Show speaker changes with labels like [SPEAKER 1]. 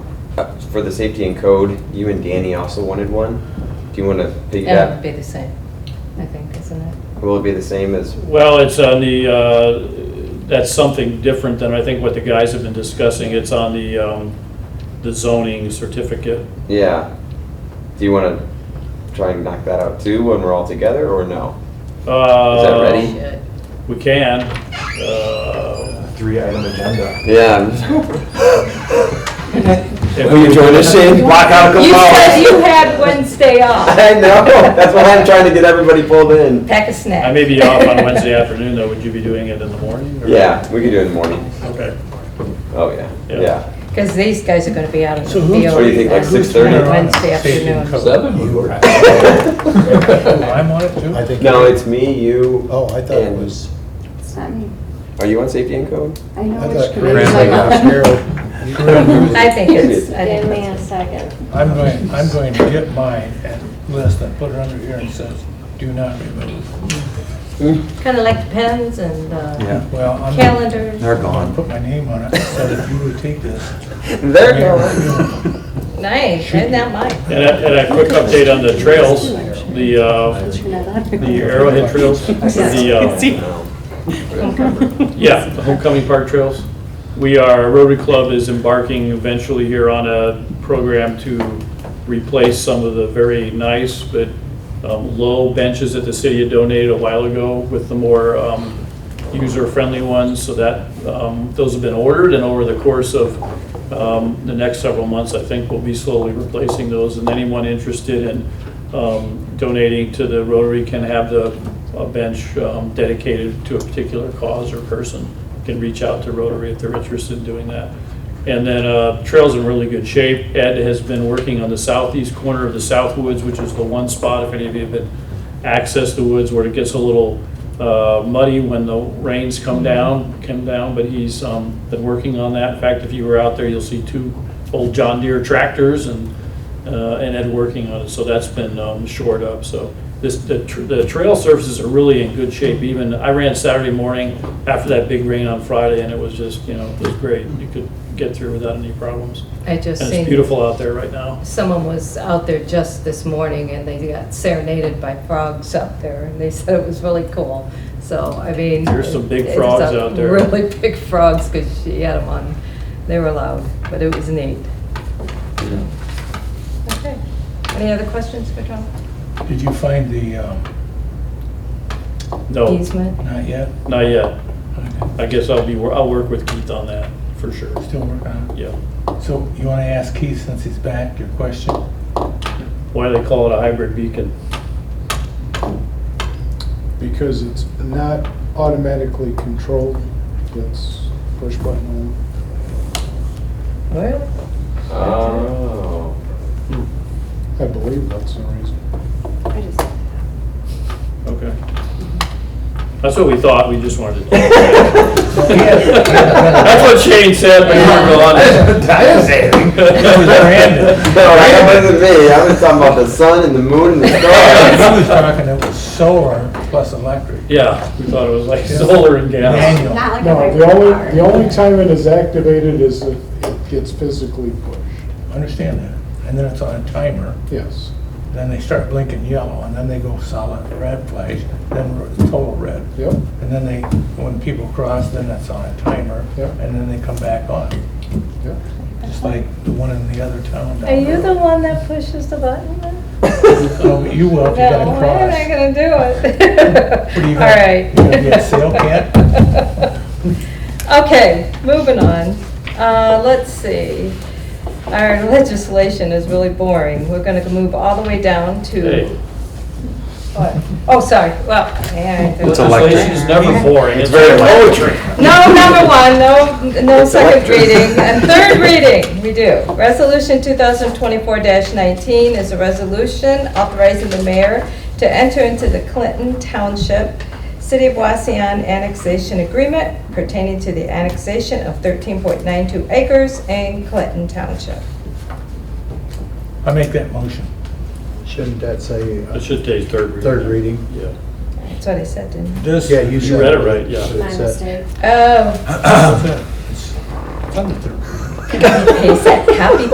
[SPEAKER 1] for the safety and code, you and Danny also wanted one. Do you want to
[SPEAKER 2] That would
[SPEAKER 1] piggyback?
[SPEAKER 2] be the same, I think, isn't it?
[SPEAKER 1] Will it be the same as,
[SPEAKER 3] Well, it's on the, uh, that's something different than I think what the guys have been discussing. It's on the, um, the zoning certificate.
[SPEAKER 1] yeah. Do you want to try and knock that out too when we're all together or no?
[SPEAKER 3] Is that
[SPEAKER 4] Oh.
[SPEAKER 1] ready?
[SPEAKER 2] Should.
[SPEAKER 3] We can. Uh,
[SPEAKER 5] Three item agenda.
[SPEAKER 1] Yeah.
[SPEAKER 3] if
[SPEAKER 1] Will you
[SPEAKER 3] we-
[SPEAKER 1] join us, Shane?
[SPEAKER 5] Block out
[SPEAKER 2] You said
[SPEAKER 5] Capone.
[SPEAKER 2] you had Wednesday off.
[SPEAKER 1] I know, that's why I'm trying to get everybody pulled in.
[SPEAKER 2] Pack a snack.
[SPEAKER 3] I may be off on Wednesday afternoon, though. Would you be doing it in the morning? or-
[SPEAKER 1] Yeah, we could do it in the morning.
[SPEAKER 3] Okay.
[SPEAKER 1] Oh, yeah,
[SPEAKER 3] Yeah.
[SPEAKER 1] yeah.
[SPEAKER 2] Because these guys are going to be out in the
[SPEAKER 4] So
[SPEAKER 2] field.
[SPEAKER 4] who's-
[SPEAKER 1] What do you think, like
[SPEAKER 2] on
[SPEAKER 1] 6:30?
[SPEAKER 2] Wednesday
[SPEAKER 4] Safety and
[SPEAKER 2] afternoon.
[SPEAKER 4] code.
[SPEAKER 6] Seven would
[SPEAKER 4] You-
[SPEAKER 6] work.
[SPEAKER 4] I'm on it too?
[SPEAKER 5] I think.
[SPEAKER 1] No, it's me, you.
[SPEAKER 4] Oh, I thought it
[SPEAKER 1] and-
[SPEAKER 4] was,
[SPEAKER 7] It's not me.
[SPEAKER 1] Are you on safety and code?
[SPEAKER 7] I know
[SPEAKER 4] I
[SPEAKER 7] which
[SPEAKER 4] thought
[SPEAKER 7] committee.
[SPEAKER 4] Corinne's like, Harold.
[SPEAKER 2] I think it's, I
[SPEAKER 7] Give
[SPEAKER 2] think
[SPEAKER 7] me a
[SPEAKER 2] it's.
[SPEAKER 7] second.
[SPEAKER 4] I'm going, I'm going to get mine and list and put it under here and says, do not remove.
[SPEAKER 2] Kind of like pens and uh,
[SPEAKER 4] Well, I'm.
[SPEAKER 2] calendars.
[SPEAKER 6] They're
[SPEAKER 4] I'll
[SPEAKER 6] gone.
[SPEAKER 4] Put my name on it, so that you would take this.
[SPEAKER 1] There
[SPEAKER 2] Nice, isn't that mine?
[SPEAKER 3] And a, and a quick update on the trails, the, uh,
[SPEAKER 7] Turn that on.
[SPEAKER 3] the Arrowhead trails, or the, uh, Yeah, the homecoming park trails. We are, Rotary Club is embarking eventually here on a program to replace some of the very nice but um, low benches that the city had donated a while ago with the more um, user-friendly ones. So that, um, those have been ordered and over the course of um, the next several months, I think we'll be slowly replacing those. And anyone interested in um, donating to the Rotary can have the a bench um, dedicated to a particular cause or person. Can reach out to Rotary if they're interested in doing that. And then uh, trails in really good shape. Ed has been working on the southeast corner of the South Woods, which is the one spot, if any of you have been access the woods where it gets a little uh, muddy when the rains come down, come down, but he's um, been working on that. In fact, if you were out there, you'll see two old John Deere tractors and, uh, and Ed working on it, so that's been um, shored up, so. This, the tr- the trail surfaces are really in good shape, even, I ran Saturday morning after that big rain on Friday, and it was just, you know, it was great. You could get through without any problems.
[SPEAKER 2] I just
[SPEAKER 3] And it's
[SPEAKER 2] seen,
[SPEAKER 3] beautiful out there right now.
[SPEAKER 2] someone was out there just this morning and they got serenaded by frogs out there and they said it was really cool. So, I mean.
[SPEAKER 3] There's some
[SPEAKER 2] it
[SPEAKER 3] big
[SPEAKER 2] was
[SPEAKER 3] frogs
[SPEAKER 2] a
[SPEAKER 3] out there.
[SPEAKER 2] Really big frogs because she had them on. They were loud, but it was neat. Okay. Any other questions for Tom?
[SPEAKER 4] Did you find the, um,
[SPEAKER 3] No,
[SPEAKER 2] Easement?
[SPEAKER 4] not yet?
[SPEAKER 3] not yet.
[SPEAKER 4] Okay.
[SPEAKER 3] I guess I'll be, wor- I'll work with Keith on that, for sure.
[SPEAKER 4] Still working on
[SPEAKER 3] Yeah.
[SPEAKER 4] it. So you want to ask Keith, since he's back, your question?
[SPEAKER 3] Why do they call it a hybrid beacon?
[SPEAKER 8] because it's not automatically controlled. It's push button on.
[SPEAKER 2] Really?
[SPEAKER 1] Oh.
[SPEAKER 8] I believe that's the reason.
[SPEAKER 7] I just-
[SPEAKER 3] Okay. That's what we thought, we just wanted to. That's what
[SPEAKER 1] That's
[SPEAKER 3] Shane said, but you weren't on
[SPEAKER 6] Time saving.
[SPEAKER 1] No, that wasn't me. I was talking about the sun and the moon and the
[SPEAKER 4] He was
[SPEAKER 1] stars.
[SPEAKER 4] talking, it was solar plus electric.
[SPEAKER 3] Yeah, we thought it was like solar and gas.
[SPEAKER 4] Manual.
[SPEAKER 7] Not like a
[SPEAKER 8] No,
[SPEAKER 7] hybrid
[SPEAKER 8] the only,
[SPEAKER 7] car.
[SPEAKER 8] the only time it is activated is if it gets physically pushed.
[SPEAKER 4] Understand that. And then it's on a timer,
[SPEAKER 8] Yes,
[SPEAKER 4] then they start blinking yellow, and then they go solid red flash, then r- total red.
[SPEAKER 8] yep.
[SPEAKER 4] And then they, when people cross, then that's on a timer,
[SPEAKER 8] Yeah.
[SPEAKER 4] and then they come back on.
[SPEAKER 8] Yeah.
[SPEAKER 4] Just like the one in the other town down
[SPEAKER 2] Are you the
[SPEAKER 4] road.
[SPEAKER 2] one that pushes the button then?
[SPEAKER 4] Oh, You will if you
[SPEAKER 2] No,
[SPEAKER 4] gotta
[SPEAKER 2] why am I
[SPEAKER 4] cross.
[SPEAKER 2] gonna do
[SPEAKER 4] What are
[SPEAKER 2] it?
[SPEAKER 4] you
[SPEAKER 2] All
[SPEAKER 4] gonna-
[SPEAKER 2] right.
[SPEAKER 4] you gonna be a sale
[SPEAKER 2] Okay, moving on. Uh, let's see. Our legislation is really boring. We're gonna move all the way down
[SPEAKER 3] Hey,
[SPEAKER 2] to, what? Oh, sorry, well, yeah. I-
[SPEAKER 6] It's electric.
[SPEAKER 3] legislation's never boring. It's very
[SPEAKER 6] Poetry.
[SPEAKER 2] No, number one, no, no second reading, and third reading, we do. Resolution 2024-19 is a resolution authorizing the mayor to enter into the Clinton Township City of Waseon Annexation Agreement pertaining to the annexation of 13.92 acres in Clinton Township.
[SPEAKER 4] I make that motion.
[SPEAKER 5] Shouldn't that say uh,
[SPEAKER 3] It should take third reading.
[SPEAKER 5] third reading?
[SPEAKER 3] Yeah.
[SPEAKER 2] That's what I said, didn't I?
[SPEAKER 4] This.
[SPEAKER 5] Yeah, you
[SPEAKER 4] this
[SPEAKER 5] said.
[SPEAKER 3] read it right, yeah.
[SPEAKER 5] Should
[SPEAKER 7] My
[SPEAKER 5] it say-
[SPEAKER 7] mistake.
[SPEAKER 2] Oh,
[SPEAKER 4] is it. It's on the third.
[SPEAKER 2] he said, happy